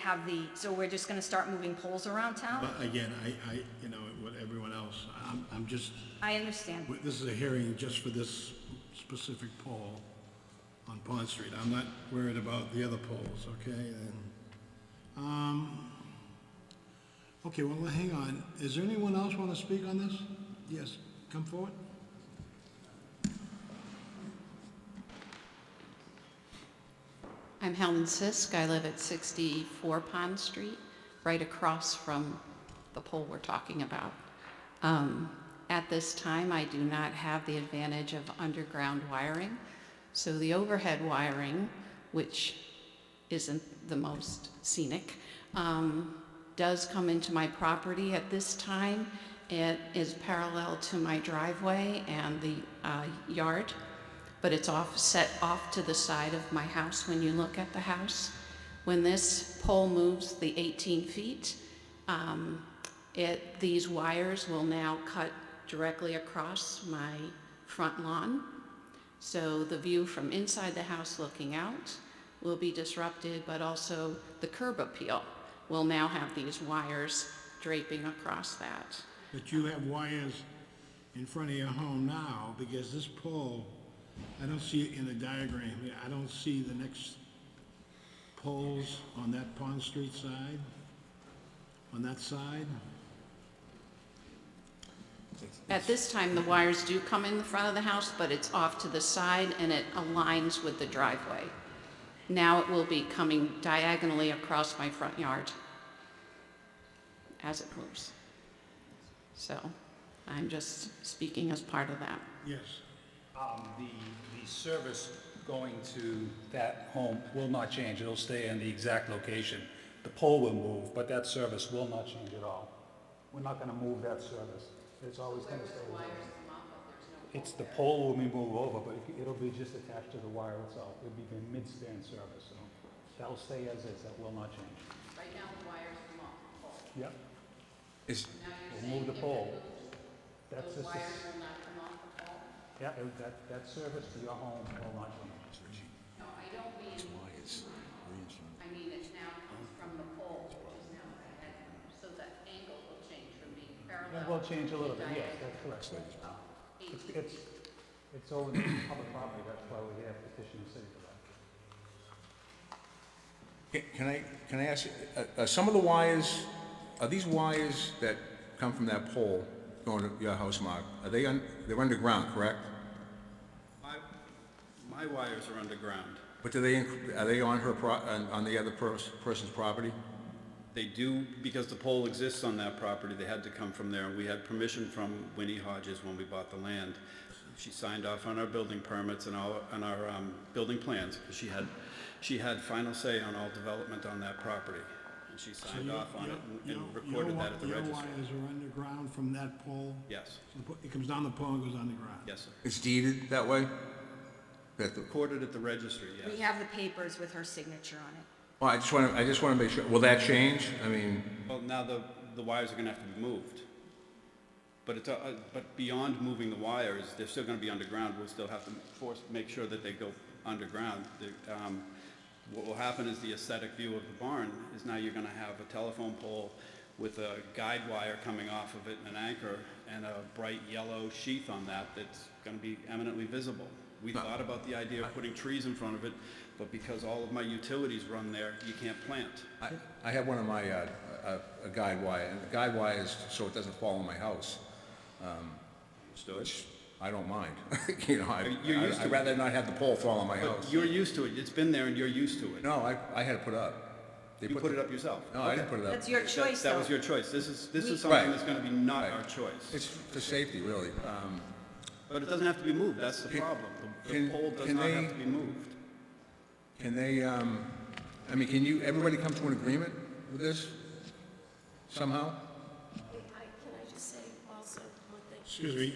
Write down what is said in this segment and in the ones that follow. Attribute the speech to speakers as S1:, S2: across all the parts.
S1: have the, so we're just gonna start moving poles around town?
S2: But again, I, I, you know, what everyone else, I'm, I'm just,
S1: I understand.
S2: this is a hearing just for this specific poll on Pond Street. I'm not worried about the other polls, okay? And, um, okay, well, hang on. Is there anyone else want to speak on this? Yes, come forward.
S3: I'm Helen Sisk. I live at 64 Pond Street, right across from the pole we're talking about. Um, At this time, I do not have the advantage of underground wiring, so the overhead wiring, which isn't the most scenic, um, does come into my property at this time. It is parallel to my driveway and the uh, yard but it's off, set off to the side of my house when you look at the house. When this pole moves the 18 feet, um, it, these wires will now cut directly across my front lawn. So the view from inside the house looking out will be disrupted, but also the curb appeal will now have these wires draping across that.
S2: But you have wires in front of your home now, because this pole, I don't see it in the diagram. I don't see the next poles on that Pond Street side, on that side.
S3: At this time, the wires do come in the front of the house, but it's off to the side and it aligns with the driveway. Now it will be coming diagonally across my front yard as it moves. So I'm just speaking as part of that.
S2: Yes.
S4: Um, The, the service going to that home will not change. It'll stay in the exact location. The pole will move, but that service will not change at all. We're not going to move that service. It's always going to stay. the It's, the pole will be moved over, but it- it'll be just attached to the wire itself. It'll be the mid-stand service, so that'll stay as is. That will not change.
S3: Right now, the wires come off the pole.
S4: Yep,
S5: Is,
S4: we'll move the pole. That's just, a s-
S3: will not come off the pole?
S4: yeah, that, that service to your home will not change.
S3: No, I don't mean, I mean, it's now comes from the pole, which is now my head, so the angle will change from being parallel.
S4: That will change a little bit, yes, that's correct. It's, it's, it's over the public property, that's why we have petition the city for that.
S5: can I, can I ask, you, uh, uh, some of the wires, are these wires that come from that pole going to your house, Mark, are they, un- they're underground, correct?
S6: My, my wires are underground.
S5: But do they, inc- are they on her, pro- on on the other pers- person's property?
S6: They do, because the pole exists on that property, they had to come from there. We had permission from Winnie Hodges when we bought the land. She signed off on our building permits and all, on our, um, building plans, because she had, she had final say on all development on that property. And she signed off on it and- and recorded that at the
S2: Your
S6: registry.
S2: wires are underground from that pole?
S6: Yes,
S2: So the po- It comes down the pole and goes underground?
S6: yes, sir.
S5: It's deeded that way? That the,
S6: Recorded at the registry, yes.
S1: We have the papers with her signature on it.
S5: well, I just want to, I just want to make sure, will that change? I mean,
S6: Well, now the, the wires are gonna have to be moved. But it's, uh, but beyond moving the wires, they're still gonna be underground, we'll still have to force, make sure that they go underground. The, um, What will happen is the aesthetic view of the barn is now you're gonna have a telephone pole with a guide wire coming off of it and an anchor and a bright yellow sheath on that that's gonna be eminently visible. We thought about the idea of putting trees in front of it, but because all of my utilities run there, you can't plant.
S5: I, I have one of my, uh, uh, a guide wire, and the guide wire is so it doesn't fall on my house. um,
S6: Understood?
S5: I don't mind, you know, I,
S6: You're
S5: I-
S6: used to
S5: I'd
S6: it.
S5: rather not have the pole fall on my
S6: But
S5: house.
S6: You're used to it, it's been there and you're used to it.
S5: Oh, No, I, I had it put up. They
S6: You put it
S5: the-
S6: up yourself.
S5: No, I didn't put it up.
S1: That's your
S6: That-
S1: choice,
S6: That
S1: though.
S6: was your choice, this is, this is
S5: Right.
S6: something that's gonna be not
S5: Right.
S6: our choice.
S5: It's for safety, really. Um,
S6: But it doesn't have to be moved, that's the problem. The- The
S5: can-
S6: pole does
S5: can
S6: not
S5: they-
S6: have to be moved.
S5: Can they, um, I mean, can you, everybody come to an agreement with this somehow?
S7: I- Can I just say also one thing?
S2: Excuse me,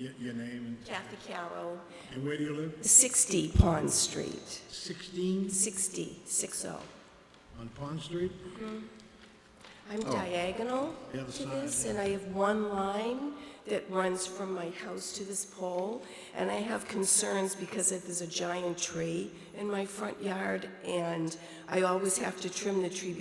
S2: y- your name
S7: Kathy Carroll,
S2: and- and where do you live?
S7: 60 Pond Street, oh.
S2: 16
S7: 60, 60.
S2: on Pond Street?
S7: I'm diagonal
S2: Oh. The other
S7: to
S2: side,
S7: this, and I have one line that runs from my house to this pole, and I have concerns because if there's a giant tree in my front yard, and I always have to trim the tree